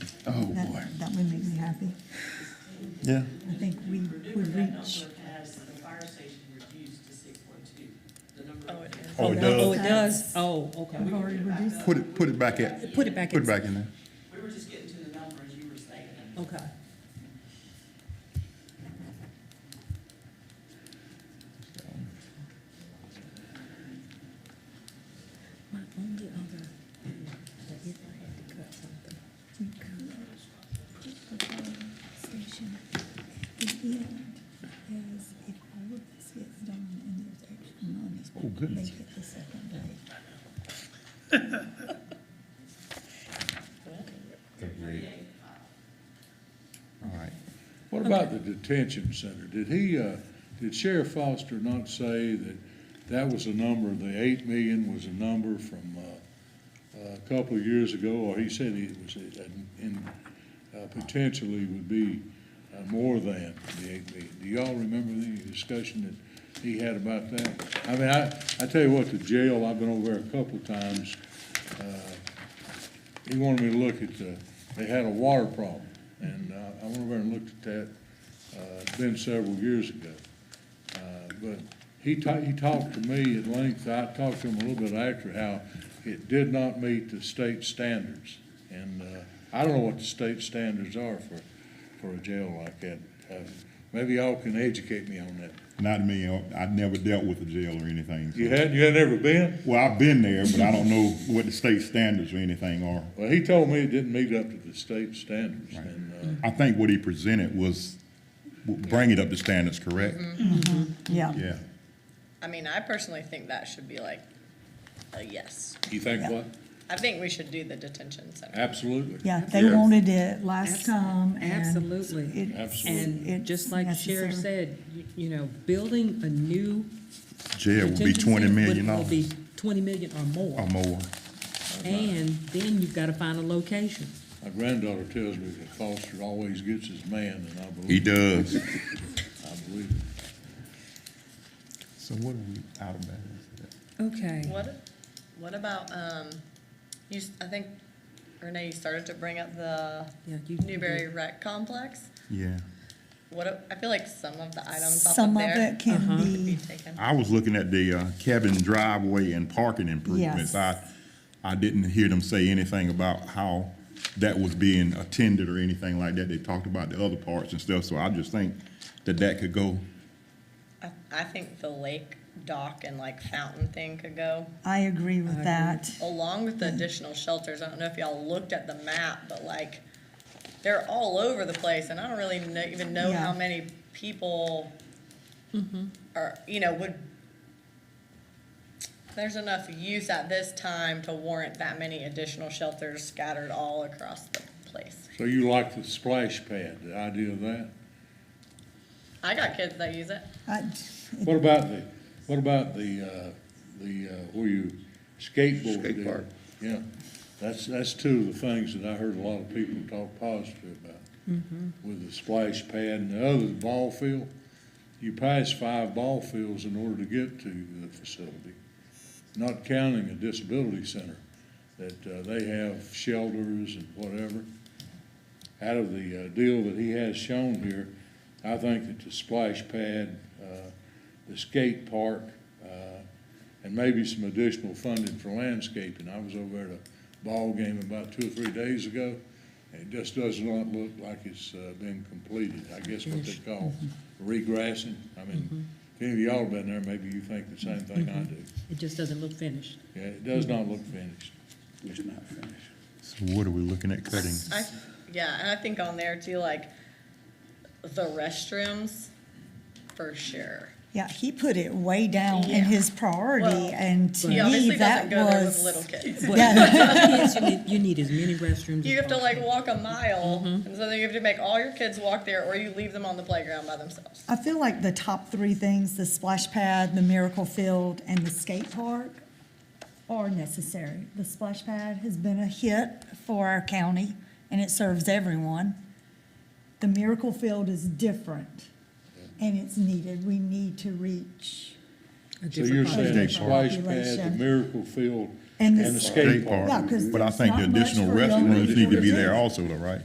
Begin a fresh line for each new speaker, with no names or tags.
Oh,
happy.
Yeah.
I think we
Purdue,
would
that number
reach,
has the fire station reduced to six point two, the number
Oh,
of.
it is.
Oh, it
Oh,
does.
it does? Oh, okay.
we've already reduced,
Put it, put it back at,
Put it back
put it
in.
back in there.
We were just getting to the number as you were saying.
Okay. My only other, but if I had to cut something.
we could put the fire station at the end, because if all of this gets done and there's extra money,
Oh, goodness.
they get the second day.
All right.
What about the detention center? Did he, uh, did Sheriff Foster not say that that was a number, the eight million was a number from, uh, a couple of years ago, or he said it was, a- an- in, uh, potentially would be uh, more than the eight million? Do y'all remember the discussion that he had about that? I mean, I, I tell you what, the jail, I've been over there a couple of times, he wanted me to look at the, they had a water problem, and uh, I went over and looked at that, uh, it's been several years ago. Uh, But he ta, he talked to me at length, I talked to him a little bit after, how it did not meet the state standards. And, uh, I don't know what the state standards are for, for a jail like that. Uh, Maybe y'all can educate me on that.
Not me, I've never dealt with a jail or anything. so-
You had, you had never been?
Well, I've been there, but I don't know what the state standards or anything are.
Well, he told me it didn't meet up to the state standards, and, uh,
I think what he presented was, w- bring it up to standards, correct?
Mm-hmm.
Yeah.
Yeah.
I mean, I personally think that should be like a yes.
you think what?
I think we should do the detention center.
Absolutely.
Yeah, they
Yeah.
wanted it last time and.
Absolutely.
it-
Absolutely.
And
it's
just like Sherry
necessary.
said, you- you know, building a new
Jail would be
detention
twenty
center
million
would- would be
dollars Oh
Twenty million or
or
more,
more.
and then you've gotta find a location.
My granddaughter tells me that Foster always gets his man, and I
He
believe,
does.
I believe it.
So what are we out of bounds?
Okay.
What, what about, um, you, s- I think Renee, you started to bring up the
Yeah, you-
Newberry Rec Complex.
Yeah.
What, a- I feel like some of the items off of
Some of
there
it can
Uh-huh.
could be
be,
taken.
I was looking at the uh, cabin driveway and parking improvements.
Yes.
I, I didn't hear them say anything about how that was being attended or anything like that. They talked about the other parts and stuff, so I just think that that could go.
I, I think the lake dock and like fountain thing could go,
I agree with that.
along with the additional shelters. I don't know if y'all looked at the map, but like, they're all over the place, and I don't really know, even know
Yeah.
how
Mm-hmm.
many people are, you know, would, there's enough use at this time to warrant that many additional shelters scattered all across the place.
So you like the splash pad, the idea of that?
I got kids that use it.
I-
What about the, what about the, uh, the, uh, where you skateboard?
Skate
there?
park.
Yeah, that's, that's two of the things that I heard a lot of people talk positive about. With the splash pad and the other, the ball field. You pass five ball fields in order to get to the facility, not counting a disability center that, uh, they have shelters and whatever. out of the uh, deal that he has shown here, I think that the splash pad, uh, the skate park, uh, and maybe some additional funding for landscaping. I was over at a ball game about two or three days ago, and it just does not look like it's uh, been completed. I guess what they call regrassing. I mean, if any of y'all have been there, maybe you think the same thing I do.
It just doesn't look finished.
Yeah, it does not look finished.
It's not finished.
So what are we looking at cutting?
I, yeah, and I think on there too, like, the restrooms, for sure.
Yeah, he put it way down
Yeah.
in his priority
Well,
and to
He
me,
obviously
that
doesn't go there with little
was.
kids.
Yeah,
Yes, you need, you need as many restrooms.
You
as
have to
possible.
like walk a mile, and so then you have to make all your kids walk there, or you leave them on the playground by themselves.
I feel like the top three things, the splash pad, the miracle field, and the skate park are necessary. The splash pad has been a hit for our county and it serves everyone. The miracle field is different and it's needed. We need to reach.
A
So
different
you're
color.
saying the splash pad, the
Population.
miracle field,
And
and
the
the
skate
skate park.
Yeah, 'cause
But I
it's
think
not
the
much
additional
for young
restrooms need to
people
be
to
there
do.
also though, right?